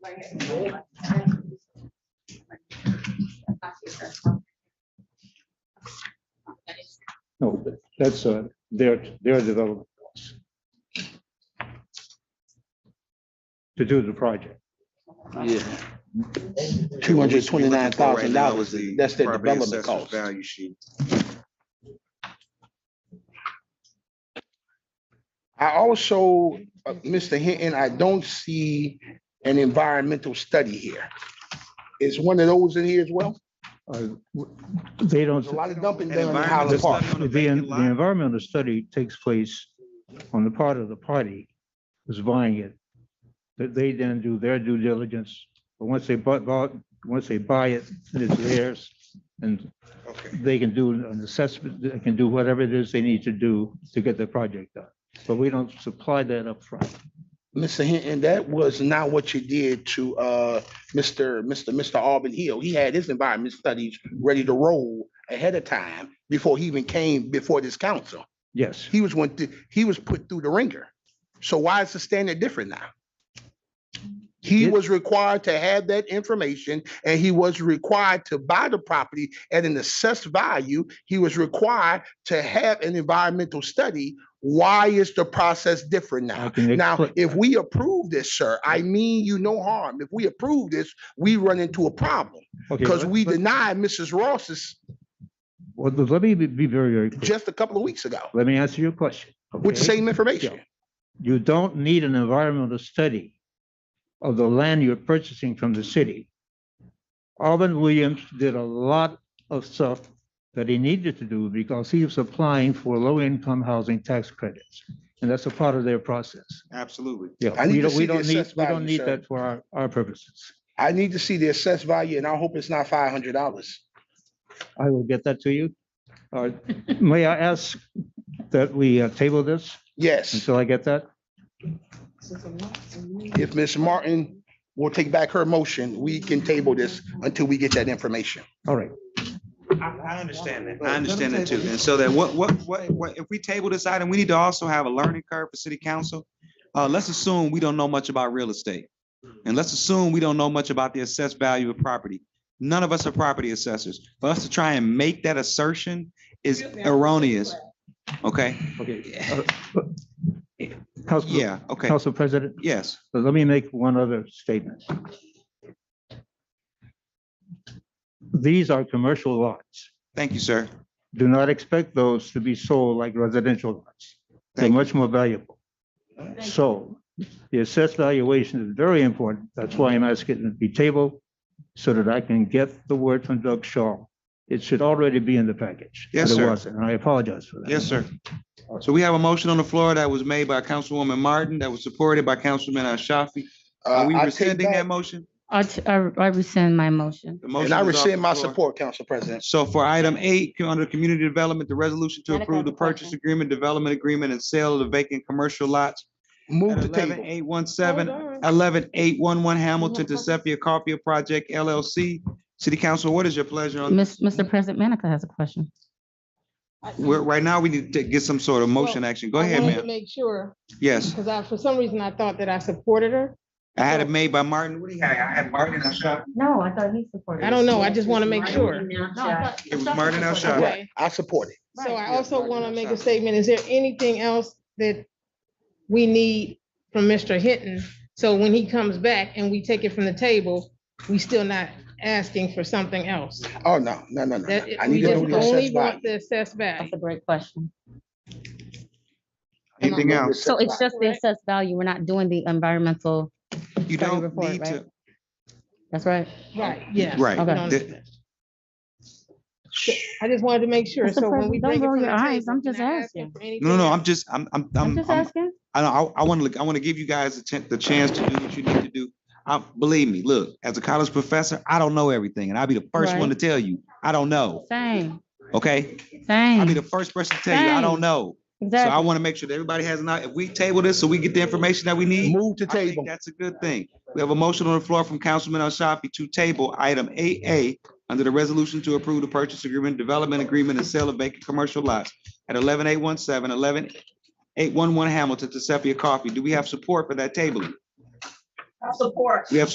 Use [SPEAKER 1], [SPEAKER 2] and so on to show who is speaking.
[SPEAKER 1] No, but that's uh, their, their development costs. To do the project.
[SPEAKER 2] Yeah.
[SPEAKER 3] Two hundred twenty-nine
[SPEAKER 2] Right
[SPEAKER 3] thousand
[SPEAKER 2] now
[SPEAKER 3] dollars,
[SPEAKER 2] is the
[SPEAKER 3] that's the
[SPEAKER 2] property
[SPEAKER 3] development
[SPEAKER 2] assessor's
[SPEAKER 3] cost.
[SPEAKER 2] Value sheet.
[SPEAKER 3] I also, uh, Mr. Hinton, I don't see an environmental study here. Is one of those in here as well?
[SPEAKER 1] Uh, w- They don't.
[SPEAKER 3] There's a lot of dumping
[SPEAKER 2] An
[SPEAKER 3] down in
[SPEAKER 2] environmental
[SPEAKER 3] Highland Park.
[SPEAKER 2] study on a
[SPEAKER 1] The,
[SPEAKER 2] vacant
[SPEAKER 1] the
[SPEAKER 2] lot.
[SPEAKER 1] environmental study takes place on the part of the party who's buying it. That they then do their due diligence, but once they bought, bought, once they buy it, then it's theirs. And
[SPEAKER 2] Okay.
[SPEAKER 1] they can do an assessment, they can do whatever it is they need to do to get the project done. But we don't supply that up front.
[SPEAKER 3] Mr. Hinton, that was not what you did to, uh, Mr. Mr. Mr. Auburn Hill. He had his environment studies ready to roll ahead of time before he even came before this council.
[SPEAKER 1] Yes,
[SPEAKER 3] He was went, through- he was put through the ringer. So why is the standard different now? He
[SPEAKER 1] It-
[SPEAKER 3] was required to have that information and he was required to buy the property at an assessed value. He was required to have an environmental study. Why is the process different now?
[SPEAKER 1] I can.
[SPEAKER 3] Now,
[SPEAKER 1] expl-
[SPEAKER 3] if we approve this, sir, I mean you no harm. If we approve this, we run into a problem
[SPEAKER 1] okay,
[SPEAKER 3] because
[SPEAKER 1] let-
[SPEAKER 3] we
[SPEAKER 1] let-
[SPEAKER 3] denied Mrs. Ross's
[SPEAKER 1] Well, let me be- be very, very clear.
[SPEAKER 3] just a couple of weeks ago
[SPEAKER 1] Let me answer your question.
[SPEAKER 3] with the
[SPEAKER 1] okay?
[SPEAKER 3] same information.
[SPEAKER 1] You don't need an environmental study of the land you're purchasing from the city. Alvin Williams did a lot of stuff that he needed to do because he was applying for low-income housing tax credits. And that's a part of their process.
[SPEAKER 2] Absolutely.
[SPEAKER 1] Yeah,
[SPEAKER 3] I need
[SPEAKER 1] we
[SPEAKER 3] to
[SPEAKER 1] don't,
[SPEAKER 3] see
[SPEAKER 1] we
[SPEAKER 3] the
[SPEAKER 1] don't need,
[SPEAKER 3] assessed
[SPEAKER 1] we don't
[SPEAKER 3] value,
[SPEAKER 1] need
[SPEAKER 3] sir.
[SPEAKER 1] that for our, our purposes.
[SPEAKER 3] I need to see the assessed value and I hope it's not five hundred dollars.
[SPEAKER 1] I will get that to you. Uh, May I ask that we uh, table this
[SPEAKER 3] Yes,
[SPEAKER 1] until I get that?
[SPEAKER 3] if Ms. Martin will take back her motion, we can table this until we get that information.
[SPEAKER 1] All right,
[SPEAKER 2] I understand that. I understand that too. And so that what, what, what, what, if we table this item, we need to also have a learning curve for city council. Uh, let's assume we don't know much about real estate. And let's assume we don't know much about the assessed value of property. None of us are property assessors. For us to try and make that assertion is erroneous. Okay,
[SPEAKER 1] okay. Uh, but- Council-
[SPEAKER 2] yeah, okay,
[SPEAKER 1] Council President?
[SPEAKER 2] yes.
[SPEAKER 1] So let me make one other statement. These are commercial lots.
[SPEAKER 2] Thank you, sir.
[SPEAKER 1] Do not expect those to be sold like residential lots. They're
[SPEAKER 2] Thank you.
[SPEAKER 1] much more valuable. So the assessed valuation is very important. That's why I'm asking it to be tabled so that I can get the word from Doug Shaw. It should already be in the package.
[SPEAKER 2] Yes,
[SPEAKER 1] but it
[SPEAKER 2] sir.
[SPEAKER 1] wasn't, And I apologize for that.
[SPEAKER 2] Yes, sir. So we have a motion on the floor that was made by Councilwoman Martin, that was supported by Councilman Ashafi. Are
[SPEAKER 3] Uh,
[SPEAKER 2] we
[SPEAKER 3] I take
[SPEAKER 2] rescinding that
[SPEAKER 3] back-
[SPEAKER 2] motion?
[SPEAKER 4] I, t- I I rescind my motion.
[SPEAKER 2] The
[SPEAKER 3] And
[SPEAKER 2] motion
[SPEAKER 3] I
[SPEAKER 2] is off
[SPEAKER 3] rescind
[SPEAKER 2] the
[SPEAKER 3] my
[SPEAKER 2] floor.
[SPEAKER 3] support, Council President.
[SPEAKER 2] So for item eight, under community development, the resolution to
[SPEAKER 4] Madam
[SPEAKER 2] approve the
[SPEAKER 4] Clerk, question.
[SPEAKER 2] purchase agreement, development agreement, and sale of the vacant commercial lots at
[SPEAKER 3] Move the
[SPEAKER 2] eleven
[SPEAKER 3] table.
[SPEAKER 2] eight one seven, eleven eight one one Hamilton to Sepia Coffee Project LLC. City Council, what is your pleasure on,
[SPEAKER 4] Miss, Mr. President Manica has a question.
[SPEAKER 2] we're, right now, we need to get some sort of motion action. Go
[SPEAKER 5] I
[SPEAKER 2] ahead,
[SPEAKER 5] wanted to
[SPEAKER 2] ma'am.
[SPEAKER 5] Make sure,
[SPEAKER 2] Yes,
[SPEAKER 5] because I, for some reason, I thought that I supported her.
[SPEAKER 2] I had it made by Martin. What do you have? I had Martin Ashafi.
[SPEAKER 4] No, I thought he
[SPEAKER 3] Oh,
[SPEAKER 4] supported.
[SPEAKER 5] I don't know, I just want to make sure.
[SPEAKER 2] It was Martin Ashafi.
[SPEAKER 5] Right.
[SPEAKER 3] I support it.
[SPEAKER 5] So I
[SPEAKER 2] Yeah,
[SPEAKER 5] also
[SPEAKER 2] Martin,
[SPEAKER 5] want to
[SPEAKER 2] that's
[SPEAKER 5] make
[SPEAKER 2] fine.
[SPEAKER 5] a statement, is there anything else that we need from Mr. Hinton? So when he comes back and we take it from the table, we still not asking for something else?
[SPEAKER 3] Oh, no, no, no, no, no.
[SPEAKER 5] That,
[SPEAKER 3] I
[SPEAKER 5] we
[SPEAKER 3] need to
[SPEAKER 5] just
[SPEAKER 3] know the
[SPEAKER 5] only
[SPEAKER 3] assessed
[SPEAKER 5] want
[SPEAKER 3] value.
[SPEAKER 5] the assessed value.
[SPEAKER 4] That's a great question.
[SPEAKER 2] Anything else?
[SPEAKER 4] So it's just the
[SPEAKER 5] Correct.
[SPEAKER 4] assessed value. We're not doing the environmental,
[SPEAKER 2] You
[SPEAKER 4] Study
[SPEAKER 2] don't
[SPEAKER 4] report,
[SPEAKER 2] need to,
[SPEAKER 4] that's right.
[SPEAKER 5] Right, yeah.
[SPEAKER 2] Right.
[SPEAKER 5] We
[SPEAKER 4] Okay.
[SPEAKER 5] don't
[SPEAKER 2] Th-
[SPEAKER 5] need that. I just wanted to make sure,
[SPEAKER 4] Mr.
[SPEAKER 5] so when we
[SPEAKER 4] President, don't
[SPEAKER 5] bring it
[SPEAKER 4] roll
[SPEAKER 5] from the
[SPEAKER 4] your eyes.
[SPEAKER 5] table.
[SPEAKER 4] I'm
[SPEAKER 5] we're
[SPEAKER 4] just
[SPEAKER 5] not
[SPEAKER 4] asking.
[SPEAKER 5] for
[SPEAKER 2] no, no, no,
[SPEAKER 5] anything
[SPEAKER 2] I'm just, I'm, I'm,
[SPEAKER 4] I'm
[SPEAKER 2] I'm,
[SPEAKER 4] just
[SPEAKER 2] I'm-
[SPEAKER 4] asking.
[SPEAKER 2] I, know- I, I want to, I want to give you guys the chance, the chance to do what you need to do. I, believe me, look, as a college professor, I don't know everything and I'll be the first one to
[SPEAKER 4] Right.
[SPEAKER 2] tell you, I don't know,
[SPEAKER 4] Same,
[SPEAKER 2] okay? I'll be
[SPEAKER 4] same.
[SPEAKER 2] the first person to tell you, I don't
[SPEAKER 4] Same.
[SPEAKER 2] know. So I
[SPEAKER 4] Exactly.
[SPEAKER 2] want to make sure that everybody has an, eye- if we table this, so we get the information that we need.
[SPEAKER 3] Move the
[SPEAKER 2] I think
[SPEAKER 3] table.
[SPEAKER 2] That's a good thing. We have a motion on the floor from Councilman Ashafi to table item eight A under the resolution to approve the purchase agreement, development agreement, and sale of vacant commercial lots at 11817, 11811 Hamilton to Sepia Coffee. Do we have support for that tabling?
[SPEAKER 6] I'll support.
[SPEAKER 2] We have